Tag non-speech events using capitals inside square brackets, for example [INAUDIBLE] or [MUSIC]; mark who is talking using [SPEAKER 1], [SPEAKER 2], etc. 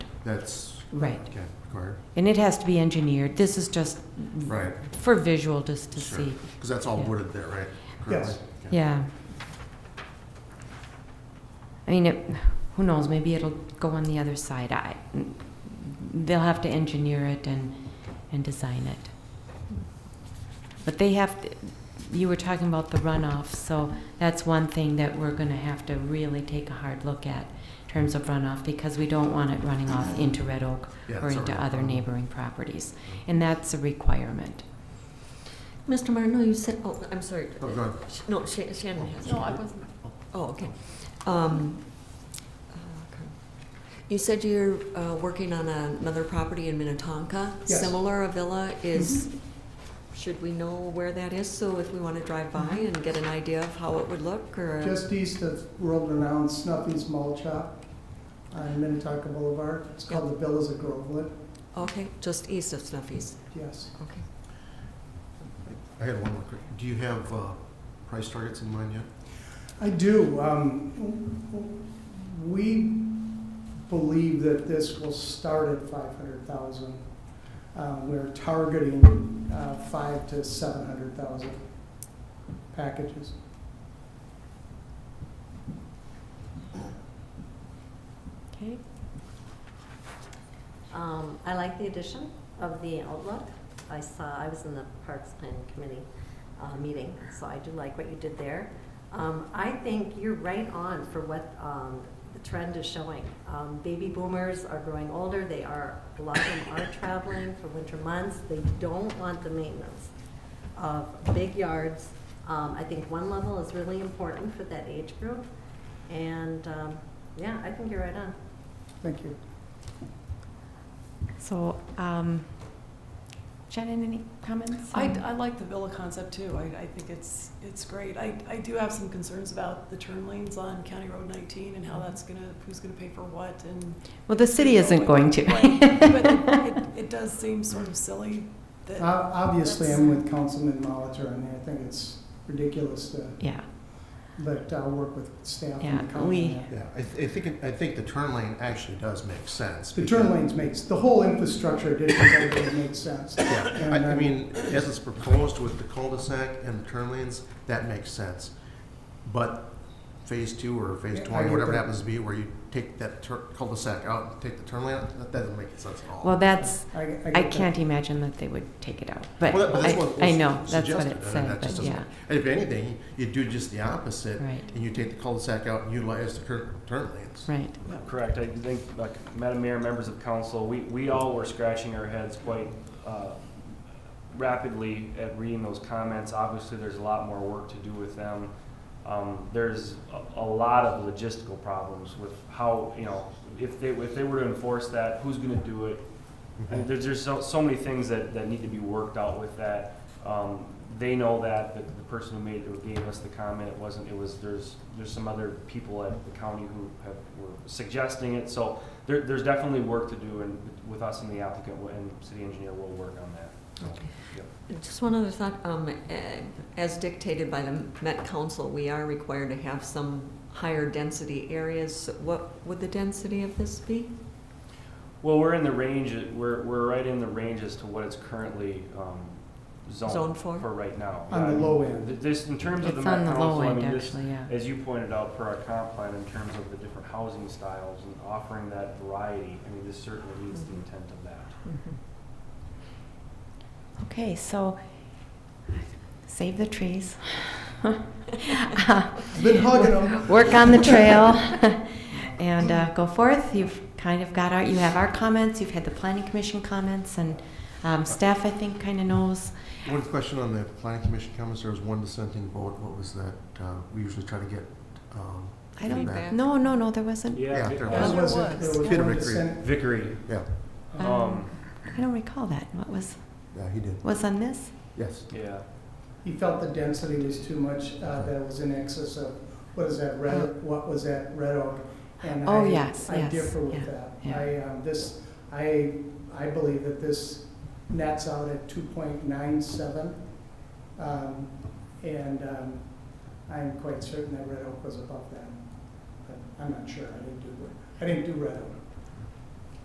[SPEAKER 1] That's,
[SPEAKER 2] Right.
[SPEAKER 1] okay, required,
[SPEAKER 2] And it has to be engineered. This is just
[SPEAKER 1] right,
[SPEAKER 2] for visual, just Mm-hmm. to
[SPEAKER 1] sure.
[SPEAKER 2] see.
[SPEAKER 1] Because that's all
[SPEAKER 2] Yeah.
[SPEAKER 1] wooded there, right?
[SPEAKER 3] Yes.
[SPEAKER 1] Currently? Okay.
[SPEAKER 2] Yeah. I mean, it, who knows, maybe it'll go on the other side. I, they'll have to engineer it and, and design it. But they have, to- you were talking about the runoff, so that's one thing that we're gonna have to really take a hard look at in terms of runoff, because we don't want it running off into Red Oak
[SPEAKER 1] Yeah,
[SPEAKER 2] or
[SPEAKER 1] it's
[SPEAKER 2] into
[SPEAKER 1] already-
[SPEAKER 2] other neighboring properties. And that's a requirement.
[SPEAKER 4] Mr. Martineau, you said, oh, I'm sorry.
[SPEAKER 1] Oh, go ahead.
[SPEAKER 4] Sh- No, Sha- Shannon has.
[SPEAKER 1] No, I
[SPEAKER 4] wasn't. Oh, okay. Um, uh, okay. You said you're uh, working on another property in Minnetonka.
[SPEAKER 3] Yes.
[SPEAKER 4] Similar, a villa is, should we know where that is? So if we want to drive by and get an idea of how it would look or?
[SPEAKER 3] Just east of world-renowned Snuffy's Mall Chop on Minnetonka Boulevard. It's called the Villas of Groveland,
[SPEAKER 4] Okay, just east of Snuffy's,
[SPEAKER 3] yes.
[SPEAKER 4] okay.
[SPEAKER 1] I had one more quick, do you have uh, price targets in mind yet?
[SPEAKER 3] I do. um, We believe that this will start at 500,000. Uh, We're targeting uh, five to 700,000 packages.
[SPEAKER 2] Okay.
[SPEAKER 5] Um, I like the addition of the outlook. I saw, I was in the Parks Planning Committee, uh, meeting, so I do like what you did there. Um, I think you're right on for what, um, the trend is showing. Um, baby boomers are growing older, they are, a lot of them are traveling for winter months. They don't want the maintenance of big yards. Um, I think one level is really important for that age group. And, um, yeah, I think you're right on.
[SPEAKER 3] Thank you.
[SPEAKER 2] So, um, Shannon, any comments?
[SPEAKER 6] I,
[SPEAKER 2] on-
[SPEAKER 6] I like the villa concept too. I, I think it's, it's great. I, I do have some concerns about the turn lanes on County Road 19 and how that's gonna, who's gonna pay for what and.
[SPEAKER 2] Well, the city isn't going to. [LAUGHS]
[SPEAKER 6] But it, it- it does seem sort of silly
[SPEAKER 2] Uh,
[SPEAKER 3] Ob-
[SPEAKER 6] that,
[SPEAKER 3] Obviously, I'm with Councilman Molitor on that. I think it's ridiculous, to-
[SPEAKER 2] Yeah,
[SPEAKER 3] but I'll work with staff
[SPEAKER 2] Yeah,
[SPEAKER 3] and council. on
[SPEAKER 2] we-
[SPEAKER 3] that.
[SPEAKER 1] Yeah, I, th- I think, it- I think the turn lane actually does make sense.
[SPEAKER 3] The turn
[SPEAKER 1] because-
[SPEAKER 3] lanes makes, the whole infrastructure addition doesn't make sense.
[SPEAKER 1] Yeah,
[SPEAKER 3] And,
[SPEAKER 1] I, I
[SPEAKER 3] um,
[SPEAKER 1] mean, as it's proposed with the cul-de-sac and the turn lanes, that makes sense. But phase two or phase
[SPEAKER 3] Yeah, I
[SPEAKER 1] twenty,
[SPEAKER 3] get
[SPEAKER 1] whatever it
[SPEAKER 3] that.
[SPEAKER 1] happens to be, where you take that tur- cul-de-sac out, and take the turn lane, out, that doesn't make sense at all.
[SPEAKER 2] well, that's,
[SPEAKER 3] I, I get
[SPEAKER 2] I
[SPEAKER 3] that.
[SPEAKER 2] can't imagine that they would take it out, but
[SPEAKER 1] Well, that- but that's what
[SPEAKER 2] I, I
[SPEAKER 1] was
[SPEAKER 2] know, that's what
[SPEAKER 1] suggested,
[SPEAKER 2] it
[SPEAKER 1] and
[SPEAKER 2] said,
[SPEAKER 1] that just
[SPEAKER 2] but
[SPEAKER 1] doesn't-
[SPEAKER 2] yeah,
[SPEAKER 1] And if anything, you do just the opposite,
[SPEAKER 2] right,
[SPEAKER 1] and you take the cul-de-sac out and utilize the current turn lanes.
[SPEAKER 2] right.
[SPEAKER 7] Correct. I think, like, Madam Mayor, members of council, we, we all were scratching our heads quite uh, rapidly at reading those comments. Obviously, there's a lot more work to do with them. Um, There's a- a lot of logistical problems with how, you know, if they, if they were to enforce that, who's gonna do it? And there's, there's so, so many things that, that need to be worked out with that. Um, they know that, but the person who made, who gave us the comment, it wasn't, it was, there's, there's some other people at the county who have, were suggesting it, so there, there's definitely work to do, and with us and the applicant and city engineer, we'll work on that.
[SPEAKER 4] Just one other thought, um, eh, as dictated by the Met Council, we are required to have some higher density areas. What would the density of this be?
[SPEAKER 7] Well, we're in the range, we're, we're right in the range as to what it's currently, um, zoned.
[SPEAKER 4] Zoned for?
[SPEAKER 7] right now.
[SPEAKER 3] On the
[SPEAKER 7] Um,
[SPEAKER 3] low end.
[SPEAKER 7] th- This, in terms of the
[SPEAKER 2] It's on
[SPEAKER 7] Met
[SPEAKER 2] the low
[SPEAKER 7] Council, I
[SPEAKER 2] end,
[SPEAKER 7] mean, this,
[SPEAKER 2] actually, yeah.
[SPEAKER 7] As you pointed out per our comp plan, in terms of the different housing styles and offering that variety, I mean, this certainly meets the intent of that.
[SPEAKER 2] Mm-hmm. Okay, so, save the trees. [LAUGHS]
[SPEAKER 3] Been hugging
[SPEAKER 1] um,
[SPEAKER 3] them.
[SPEAKER 2] Work on the trail [LAUGHS] and uh, go forth. You've kind of got our, you have our comments, you've had the planning commission comments, and um, staff, I think, kind of knows.
[SPEAKER 1] One question on the planning commission comments, there was one dissenting vote, what was that? Uh, we usually try to get, um,
[SPEAKER 2] I don't,
[SPEAKER 1] Feedback.
[SPEAKER 2] no, no, no, there wasn't,
[SPEAKER 1] Yeah,
[SPEAKER 7] Vic-
[SPEAKER 1] there
[SPEAKER 3] There
[SPEAKER 1] was.
[SPEAKER 3] was a-
[SPEAKER 6] was.
[SPEAKER 3] there was
[SPEAKER 1] Peter
[SPEAKER 3] one
[SPEAKER 1] McCreary.
[SPEAKER 3] dissent.
[SPEAKER 7] Vickery,
[SPEAKER 1] yeah,
[SPEAKER 2] Mm-hmm.
[SPEAKER 7] um,
[SPEAKER 2] I don't recall that. What was,
[SPEAKER 1] yeah, he did,
[SPEAKER 2] was on this?
[SPEAKER 1] yes.
[SPEAKER 7] yeah.
[SPEAKER 3] He felt the density was too much, uh, that it was in excess of, what is that, red, what was that, Red Oak? And
[SPEAKER 2] Oh,
[SPEAKER 3] I-
[SPEAKER 2] yes,
[SPEAKER 3] I
[SPEAKER 2] yes,
[SPEAKER 3] differ with
[SPEAKER 2] yeah,
[SPEAKER 3] that.
[SPEAKER 2] yeah.
[SPEAKER 3] I, um, this, I, I believe that this nets out at two point nine seven. Um, and, um, I'm quite certain that Red Oak was above that, but I'm not sure, I didn't do, I didn't do Red Oak.